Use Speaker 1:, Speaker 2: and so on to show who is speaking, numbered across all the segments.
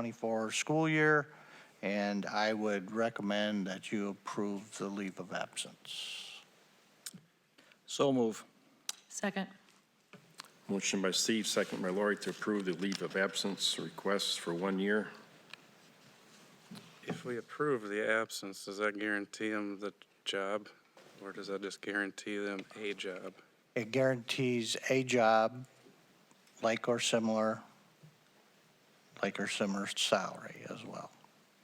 Speaker 1: 24 school year, and I would recommend that you approve the leave of absence.
Speaker 2: So move.
Speaker 3: Second.
Speaker 4: Motion by Steve, second by Lori to approve the leave of absence request for one year.
Speaker 5: If we approve the absence, does that guarantee them the job? Or does that just guarantee them a job?
Speaker 1: It guarantees a job, like or similar, like or similar salary as well.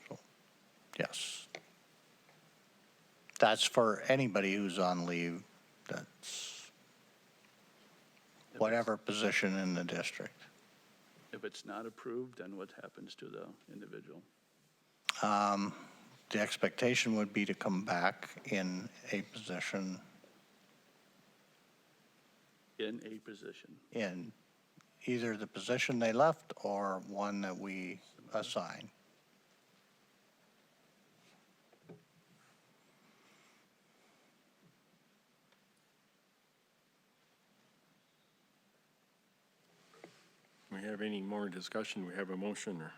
Speaker 1: So, Yes. That's for anybody who's on leave, that's whatever position in the district.
Speaker 6: If it's not approved, then what happens to the individual?
Speaker 1: Um, The expectation would be to come back in a position
Speaker 6: In a position,
Speaker 1: in either the position they left or one that we assign.
Speaker 4: Do we have any more discussion? Do we have a motion or?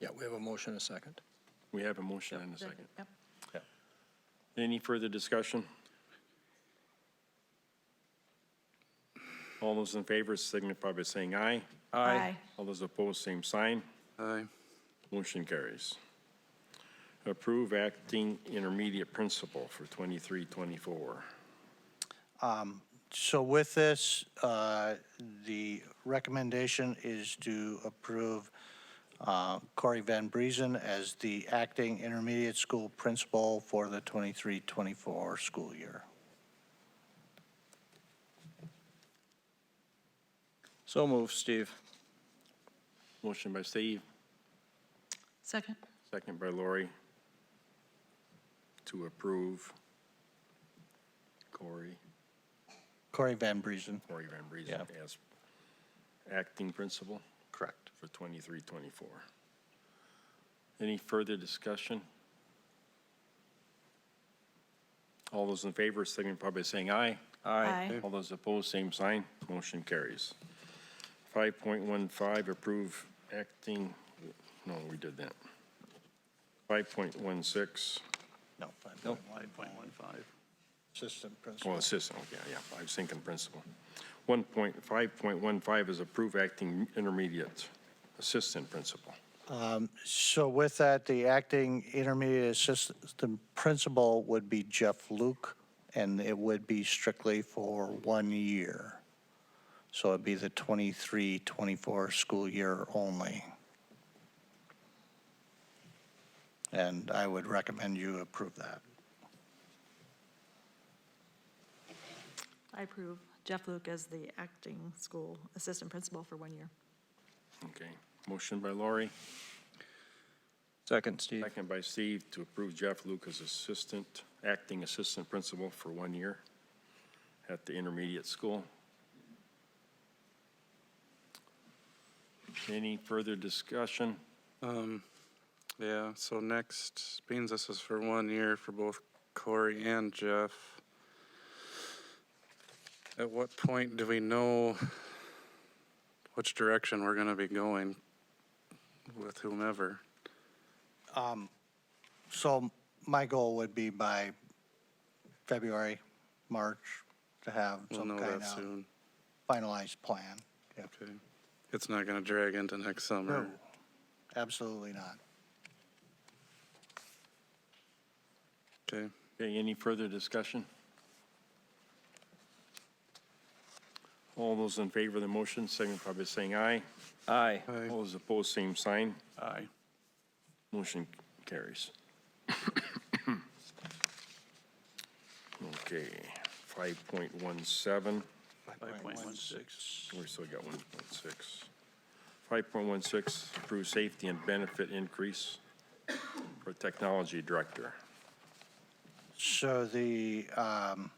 Speaker 2: Yeah, we have a motion and a second.
Speaker 4: We have a motion and a second.
Speaker 3: Yep.
Speaker 4: Any further discussion? All those in favor signify by saying aye.
Speaker 3: Aye.
Speaker 4: All those opposed, same sign.
Speaker 5: Aye.
Speaker 4: Motion carries. Approve acting intermediate principal for 23, 24.
Speaker 1: So with this, uh, the recommendation is to approve uh, Corey Van Breezen as the acting intermediate school principal for the 23-24 school year.
Speaker 2: So move, Steve.
Speaker 4: Motion by Steve,
Speaker 3: Second.
Speaker 4: second by Lori to approve Corey,
Speaker 1: Corey Van Breezen.
Speaker 4: Corey Van Breezen as acting principal. Correct. For 23, 24. Any further discussion? All those in favor signify by saying aye.
Speaker 3: Aye.
Speaker 4: All those opposed, same sign. Motion carries. 5.15, approve acting, no, we did that. 5.16,
Speaker 1: No, 5.1,
Speaker 6: 5.15.
Speaker 1: assistant principal.
Speaker 4: oh, assistant, okay, yeah, I was thinking principal. 1.5.15 is approve acting intermediate assistant principal.
Speaker 1: So with that, the acting intermediate assistant principal would be Jeff Luke, and it would be strictly for one year. So it'd be the 23, 24 school year only. And I would recommend you approve that.
Speaker 3: I approve Jeff Luke as the acting school assistant principal for one year.
Speaker 4: Okay, motion by Lori,
Speaker 2: Second, Steve.
Speaker 4: second by Steve to approve Jeff Lucas assistant, acting assistant principal for one year at the intermediate school. Any further discussion?
Speaker 5: Um, yeah, so next, beans, this is for one year for both Corey and Jeff. At what point do we know which direction we're gonna be going with whomever?
Speaker 1: So my goal would be by February, March, to have
Speaker 5: We'll
Speaker 1: some
Speaker 5: know
Speaker 1: kind
Speaker 5: that
Speaker 1: of
Speaker 5: soon.
Speaker 1: finalized plan. Yeah,
Speaker 5: Okay. It's not gonna drag into next summer.
Speaker 1: No. Absolutely not.
Speaker 5: Okay.
Speaker 4: Okay, any further discussion? All those in favor of the motion signify by saying aye.
Speaker 2: Aye.
Speaker 5: Aye.
Speaker 4: All those opposed, same sign.
Speaker 6: Aye.
Speaker 4: Motion carries. Okay, 5.17,
Speaker 6: 5.16.
Speaker 4: we still got 1.6. 5.16, approve safety and benefit increase for technology director.
Speaker 1: So the um,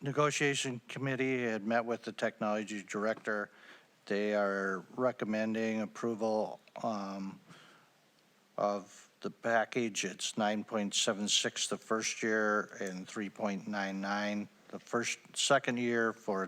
Speaker 1: negotiation committee had met with the technology director. They are recommending approval um, of the package. It's 9.76 the first year and 3.99 the first, second year for